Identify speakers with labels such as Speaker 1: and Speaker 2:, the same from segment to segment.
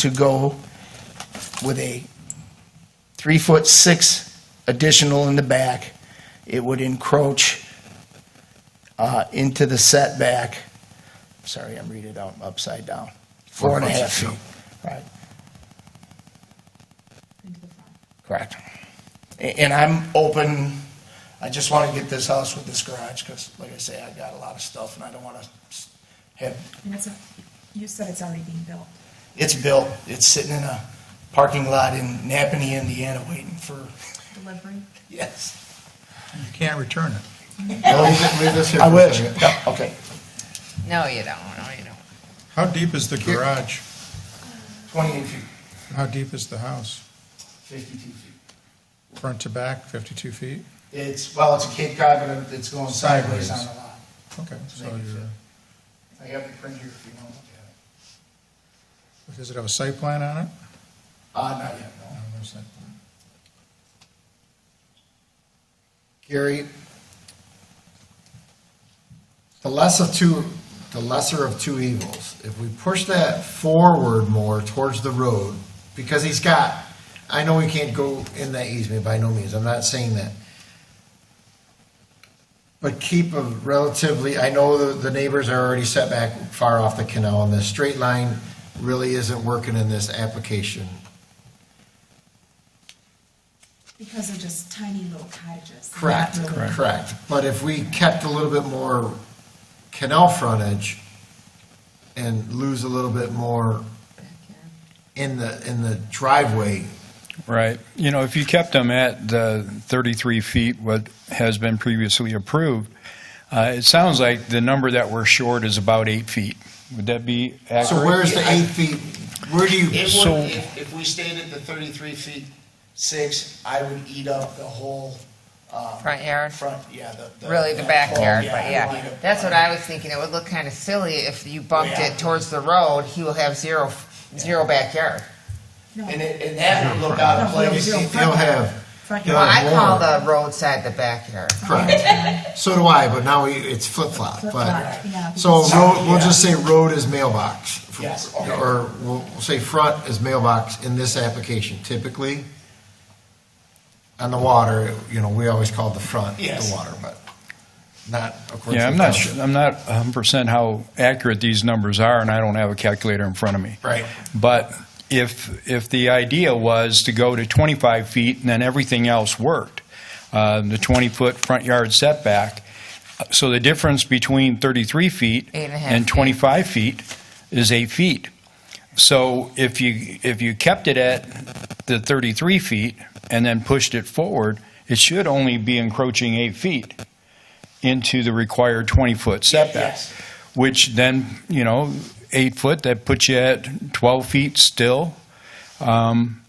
Speaker 1: to go with a three foot six additional in the back. It would encroach uh, into the setback. Sorry, I'm reading it out upside down. Four and a half feet. Right. Correct. A- And I'm open, I just want to get this house with this garage, because like I say, I got a lot of stuff and I don't want to have,
Speaker 2: And it's, a- you said it's already being built.
Speaker 1: it's built, it's sitting in a parking lot in Napanee, Indiana, waiting for,
Speaker 2: Delivery?
Speaker 1: yes.
Speaker 3: You can't return it.
Speaker 4: Leave this here
Speaker 1: I
Speaker 4: for a
Speaker 1: wish,
Speaker 4: second.
Speaker 1: Yeah, okay.
Speaker 5: No, you don't, no, you don't.
Speaker 3: How deep is the garage?
Speaker 1: 28 feet,
Speaker 3: How deep is the house?
Speaker 1: 52 feet.
Speaker 3: Front to back, 52 feet?
Speaker 1: It's, well, it's a Cape Cod, but it's going sideways on
Speaker 3: Sideways.
Speaker 1: the lot.
Speaker 3: Okay, so
Speaker 1: Make it
Speaker 3: you're,
Speaker 1: I have the print here if you want to look at it.
Speaker 3: does it have a site plan on it?
Speaker 1: Ah, not yet, no.
Speaker 3: No, no site plan.
Speaker 4: Gary, the less of two, the lesser of two evils. If we push that forward more towards the road, because he's got, I know he can't go in that easement by no means, I'm not saying that. But keep a relatively, I know the, the neighbors are already set back far off the canal, and the straight line really isn't working in this application.
Speaker 2: Because they're just tiny little cottages. They're not
Speaker 4: Correct,
Speaker 2: really-
Speaker 4: correct. But if we kept a little bit more canal frontage and lose a little bit more in the, in the driveway,
Speaker 6: Right. You know, if you kept them at the 33 feet, what has been previously approved, uh, it sounds like the number that we're short is about eight feet. Would that be accurate?
Speaker 4: so where's the eight feet? Where do you,
Speaker 1: It
Speaker 6: So-
Speaker 1: would, if, if we stayed at the thirty-three feet six, I would eat up the whole, um.
Speaker 5: Front yard?
Speaker 1: Front, yeah, the.
Speaker 5: Really, the
Speaker 1: that
Speaker 5: backyard,
Speaker 1: whole-
Speaker 5: but
Speaker 1: I'd eat
Speaker 5: yeah,
Speaker 1: up-
Speaker 5: that's what I was thinking, it would look kinda silly if you bumped
Speaker 1: Yeah.
Speaker 5: it towards the road, he will have zero, zero backyard.
Speaker 2: No,
Speaker 1: And it, and that would look out of
Speaker 2: No, no,
Speaker 1: place.
Speaker 2: no.
Speaker 4: he'll have,
Speaker 2: front
Speaker 4: Yeah.
Speaker 5: Well,
Speaker 2: yard.
Speaker 5: I call the roadside the backyard.
Speaker 4: correct. So do I, but now we- it's flip-flop,
Speaker 2: Flip-flop, yeah.
Speaker 4: but, so road, we'll just say road is mailbox.
Speaker 1: Yes, okay.
Speaker 4: Or we'll we'll say front is mailbox in this application typically. On the water, you know, we always call the front the
Speaker 1: Yes.
Speaker 4: water, but not according to.
Speaker 6: Yeah, I'm
Speaker 4: the
Speaker 6: not,
Speaker 4: township.
Speaker 6: su- I'm not 100% how accurate these numbers are, and I don't have a calculator in front of me.
Speaker 4: Right.
Speaker 6: But if, if the idea was to go to 25 feet and then everything else worked, uh, the 20-foot front yard setback, so the difference between 33 feet
Speaker 5: Eight and a half feet.
Speaker 6: 25 feet is eight feet. So if you, if you kept it at the 33 feet and then pushed it forward, it should only be encroaching eight feet into the required 20-foot setback
Speaker 1: Yes,
Speaker 6: which then, you know, eight foot, that puts you at 12 feet still, um,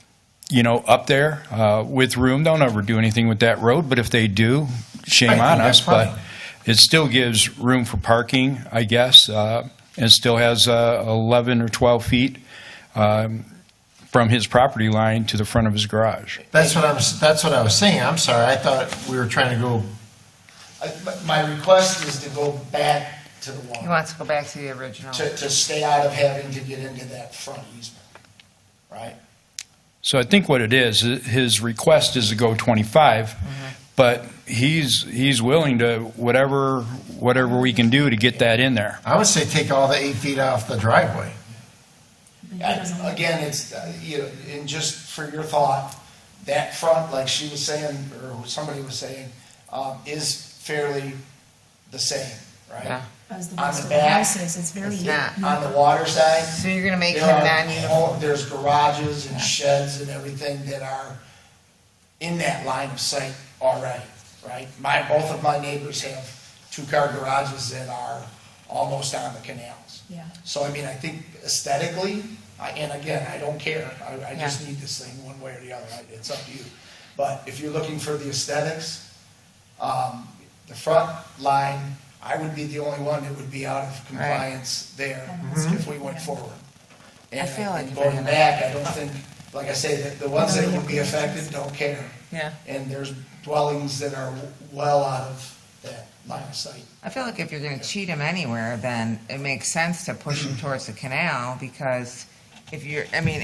Speaker 6: you know, up there uh, with room. Don't ever do anything with that road, but if they do,
Speaker 4: I
Speaker 6: shame
Speaker 4: think
Speaker 6: on
Speaker 4: that's
Speaker 6: us.
Speaker 4: fine.
Speaker 6: But it still gives room for parking, I guess, uh, and still has uh, 11 or 12 feet um, from his property line to the front of his garage.
Speaker 4: That's what I'm, s- that's what I was saying, I'm sorry, I thought we were trying to go,
Speaker 1: I- but my request is to go back to the
Speaker 5: He
Speaker 1: water,
Speaker 5: wants to go back to the original.
Speaker 1: to, to stay out of having to get into that front easement, right?
Speaker 6: So I think what it is, i- his request is to go 25, but he's, he's willing to, whatever, whatever we can do to get that in there.
Speaker 4: I would say take all the eight feet off the driveway.
Speaker 2: But it doesn't
Speaker 1: I-
Speaker 2: look-
Speaker 1: Again, it's, uh, you know, and just for your thought, that front, like she was saying, or somebody was saying, um, is fairly the same, right?
Speaker 5: Yeah.
Speaker 2: As the
Speaker 1: on
Speaker 2: rest
Speaker 1: the
Speaker 2: of the
Speaker 1: back,
Speaker 2: houses, it's very.
Speaker 5: it's not.
Speaker 1: On the water side,
Speaker 5: So you're gonna make him
Speaker 1: there are
Speaker 5: non-uniform.
Speaker 1: all- There's garages and sheds and everything that are in that line of sight already, right? My, both of my neighbors have two-car garages that are almost on the canals.
Speaker 2: Yeah.
Speaker 1: So I mean, I think aesthetically, I, and again, I don't care, I, I just
Speaker 5: Yeah.
Speaker 1: need this thing one way or the other, I- it's up to you. But if you're looking for the aesthetics, um, the front line, I would be the only one that would be out of compliance there if we went forward. And
Speaker 5: feel
Speaker 1: I-
Speaker 5: like
Speaker 1: and
Speaker 5: if I
Speaker 1: Going
Speaker 5: had-
Speaker 1: back, I don't think, like I say, the, the ones that would be affected don't care.
Speaker 5: Yeah.
Speaker 1: And there's dwellings that are well out of that line of sight.
Speaker 5: I feel like if you're going to cheat him anywhere, then it makes sense to push him towards the canal because if you're, I mean,